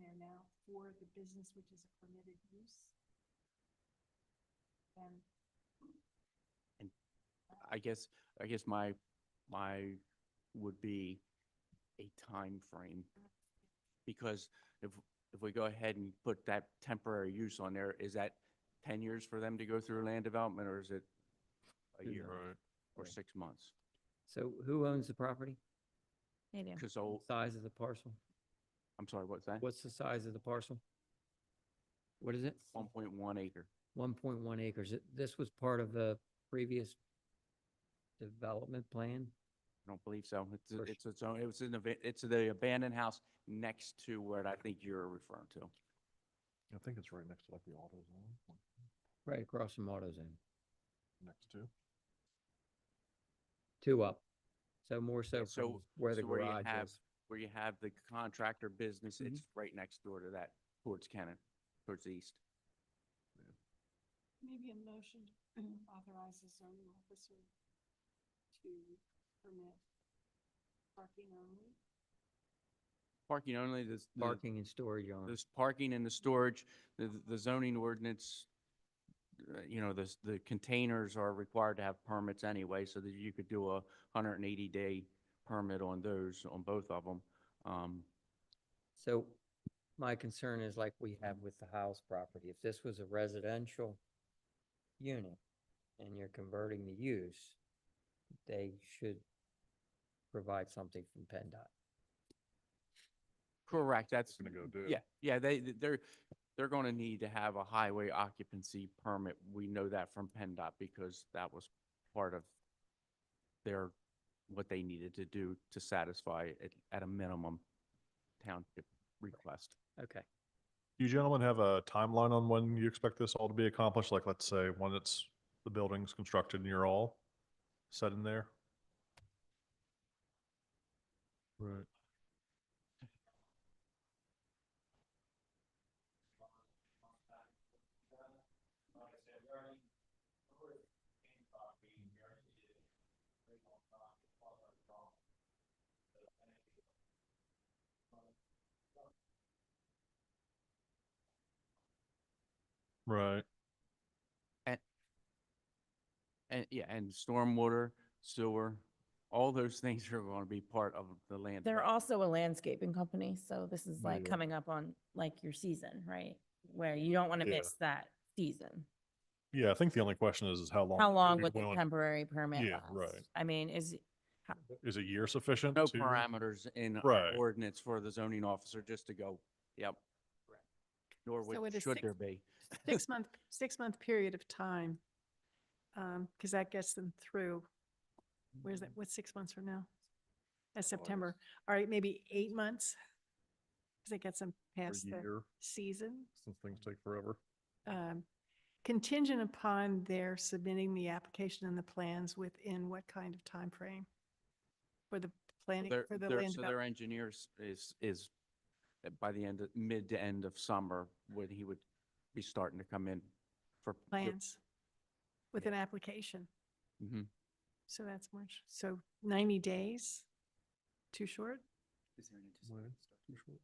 there now for the business which is a permitted use. And I guess, I guess my, my would be a time frame Because if, if we go ahead and put that temporary use on there, is that ten years for them to go through land development or is it a year Right. or Right. six months? So who owns the property? They do. Cause old, Size of the parcel? I'm sorry, what's that? What's the size of the parcel? What is it? One point one acre. One point one acres. It- This was part of the previous development plan? I don't believe so. It's, First- it's its own, it was an event, it's the abandoned house next to what I think you're referring to. I think it's right next to like the auto zone, Right across from AutoZone, next to. two up. So more so so- from where the so where you garage have- is. Mm-hmm. Where you have the contractor business, it's right next door to that, towards Cannon, towards the east. maybe a motion authorizes zoning officer to permit parking only. Parking only, this. the- Parking and storage on. This parking and the storage, the, the zoning ordinance, uh, you know, the, the containers are required to have permits anyway, so that you could do a hundred and eighty day permit on those, on both of them. Um, So my concern is like we have with the house property, if this was a residential unit and you're converting the use, they should provide something from PennDOT. correct, that's, Gonna go do. yeah, yeah, they, they're, they're gonna need to have a highway occupancy permit. We know that from PennDOT because that was part of their, what they needed to do to satisfy at, at a minimum township request. Okay. Do you gentlemen have a timeline on when you expect this all to be accomplished? Like, let's say, when it's, the building's constructed and you're all set in there? Right. Right. And, yeah, and stormwater, sewer, all those things are gonna be part of the land. They're development. also a landscaping company, so this is like Yeah. coming up on like your season, right? Where you don't want to Yeah. miss that season. Yeah, I think the only question is, is how long? How are long you would the willing- temporary permit Yeah, right. last? I mean, is, Is a year sufficient? No to- parameters in our Right. ordinance for the zoning officer just to go, yep. Nor So would, it is should six- there be. six month, six month period of time. Um, cause that gets them through, where's that, what's six months from now? That's September. All right, maybe eight months. Cause it gets them for past A the year, season. since things take forever. Um, contingent upon their submitting the application and the plans within what kind of time frame For the planning, Their, for the their- land so their development. engineers is, is uh, by the end, of mid to end of summer, when he would be starting to come in for. the- plans with an application. Mhm. So that's March. So 90 days? Too short? Right, too short.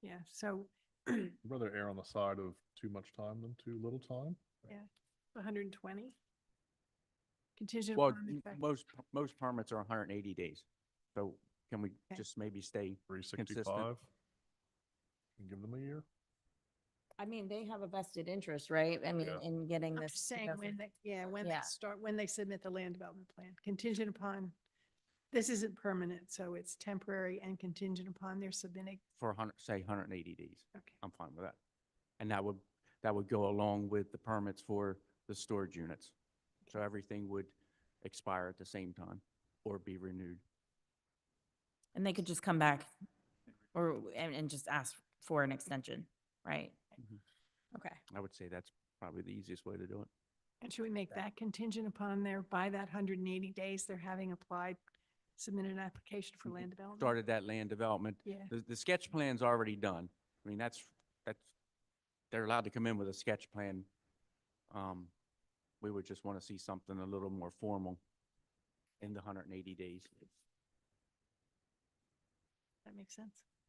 Yeah, so I'd Rather err on the side of too much time than too little time. 120? Contingent Well, upon the fact- most, most permits are hundred and eighty days. So can we Okay. just maybe stay Three sixty-five. Give them a year. I mean, they have a vested interest, right? I mean, Yeah. in getting I'm this. just to saying go when through. they, yeah, when they Yeah. start, when they submit the land development plan, contingent upon, this isn't permanent, so it's temporary and contingent upon their submitting, for hundred, say hundred and eighty days. okay. I'm fine with that. And that would, that would go along with the permits for the storage units. So everything would expire at the same time or be renewed. And they could just come back or, and, and just ask for an extension, right? Mhm. Mm-hmm. Okay. I would say that's probably the easiest way to do it. And should we make that contingent upon their, by that 180 days, they're having applied, submitted an application for Mhm. land development? Started that land development. Yeah, The, the sketch plan's already done. I mean, that's, that's, they're allowed to come in with a sketch plan. Um, we would just want to see something a little more formal in the hundred and eighty days. that makes sense.